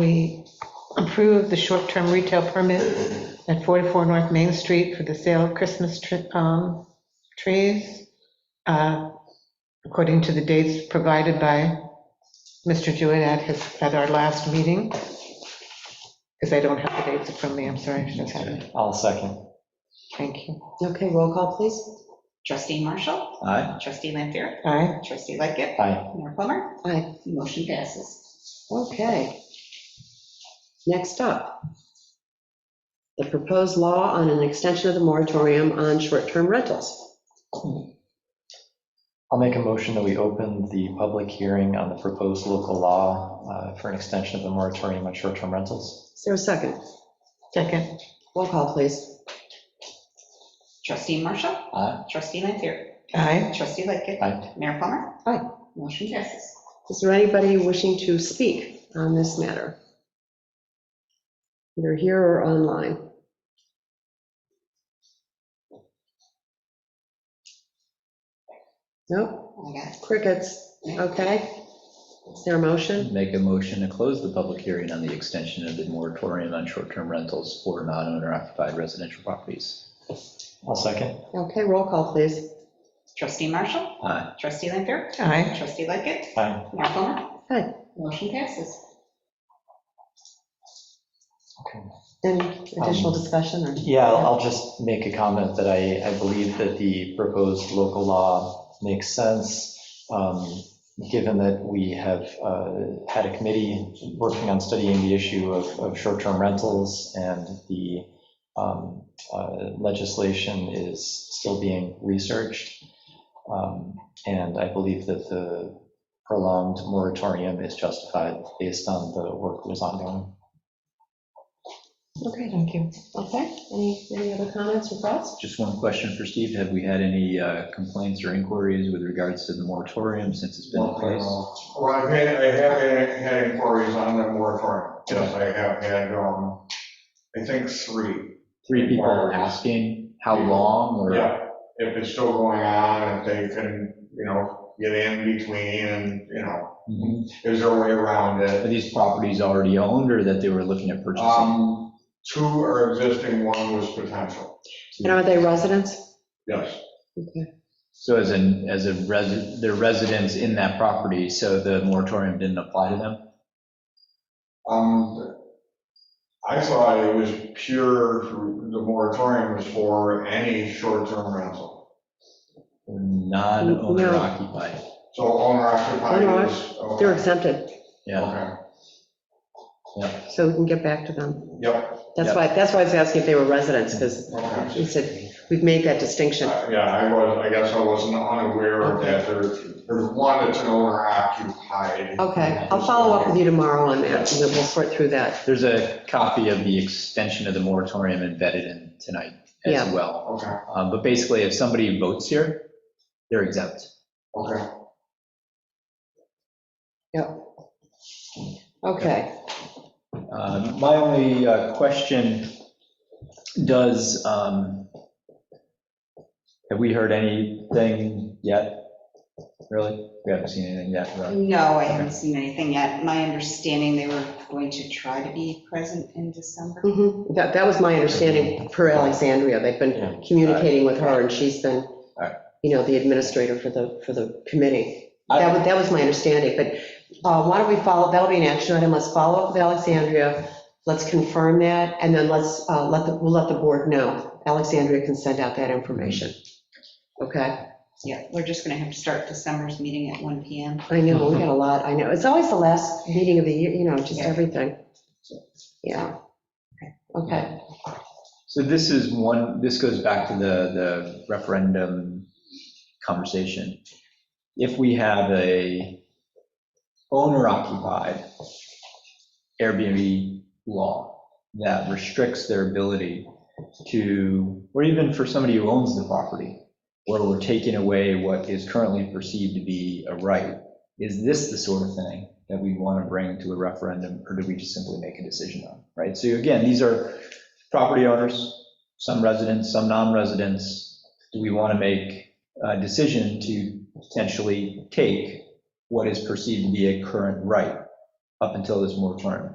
we approve the short-term retail permit at 44 North Main Street for the sale of Christmas tr- um, trees, uh, according to the dates provided by Mr. Jewett at his, at our last meeting, because I don't have the dates from me, I'm sorry, I should have had it. I'll second. Thank you. Okay, roll call, please. Trustee Marshall? Aye. Trustee Lampier? Aye, Trustee Lightgift? Aye. Mayor Plummer? Aye. Motion passes. Okay. Next up, the proposed law on an extension of the moratorium on short-term rentals. I'll make a motion that we open the public hearing on the proposed local law uh, for an extension of the moratorium on short-term rentals. Is there a second? second, Roll call, please. Trustee Marshall? Aye. Trustee Lampier? aye, Trustee Lightgift? Aye. Mayor Plummer? Aye. Motion passes. Is there anybody wishing to speak on this matter? Either here or online. Nope, I got it. crickets. Okay. Is there a motion? Make a motion to close the public hearing on the extension of the moratorium on short-term rentals for non-owner occupied residential properties. I'll second. Okay, roll call, please. Trustee Marshall? Aye. Trustee Lampier? aye. Trustee Lightgift? Aye. Mayor Plummer? Aye. Motion passes. Okay. Any additional Um, discussion or? Yeah, I'll I'll just make a comment that I, I believe that the proposed local law makes sense, um, given that we have uh, had a committee working on studying the issue of, of short-term rentals, and the um, uh, legislation is still being researched. Um, And I believe that the prolonged moratorium is justified based on the work that is ongoing. Okay, thank you. Okay, any, any other comments or thoughts? Just one question for Steve. Have we had any uh, complaints or inquiries with regards to the moratorium since it's been in place? Well, I've had, I have had- had inquiries on the moratorium. Yes, I have had, um, I think three. Three people are asking how long or, uh, Yeah, if it's still going on, if they can, you know, get in between and, you know, Mhm. is there a way around are it? these properties already owned or that they were looking at purchasing? Um, two are existing, one was potential. And are they residents? Yes, Okay. So as in, as a resident, they're residents in that property, so the moratorium didn't apply to them? um, I thought it was pure, the moratorium was for any short-term rental. Non-owner No. occupied, So owner occupied is. They're okay. exempted, yeah. Okay, so we can get back to them. yep, That's why, that's why I was asking if they were residents, because okay. he said, we've made that distinction. Uh, Yeah, I was, I guess I wasn't unaware of that. There, there's one that's an owner occupied. Okay, I'll follow up with you tomorrow on that, and then we'll sort through that. There's a copy of the extension of the moratorium embedded in tonight as Yeah. well. Okay, Uh, But basically, if somebody votes here, they're exempt. okay. Okay, Um, My only uh, question, does, um, have we heard anything yet? Really? We haven't seen anything yet, right? No, I haven't seen anything yet. My understanding, they were going to try to be present in December. Mhm. that, that was my understanding per Alexandria. They've been Yeah. communicating with her, and she's been, right. you know, the administrator for the, for the committee. That was, that was my understanding, but uh, why don't we follow, that'll be an action item, let's follow up with Alexandria, let's confirm that, and then let's, uh, let the, we'll let the board know. Alexandria can send out that information. Okay, Yeah, we're just going to have to start December's meeting at 1 PM. I know, we got a lot, I know, it's always the last meeting of the year, you know, just everything. Yeah. Okay, So this is one, this goes back to the, the referendum conversation. If we have a owner occupied Airbnb law that restricts their ability to, or even for somebody who owns the property, where we're taking away what is currently perceived to be a right, is this the sort of thing that we want to bring to a referendum, or do we just simply make a decision on, right? So again, these are property owners, some residents, some non-residents, do we want to make a decision to potentially take what is perceived to be a current right up until this moratorium?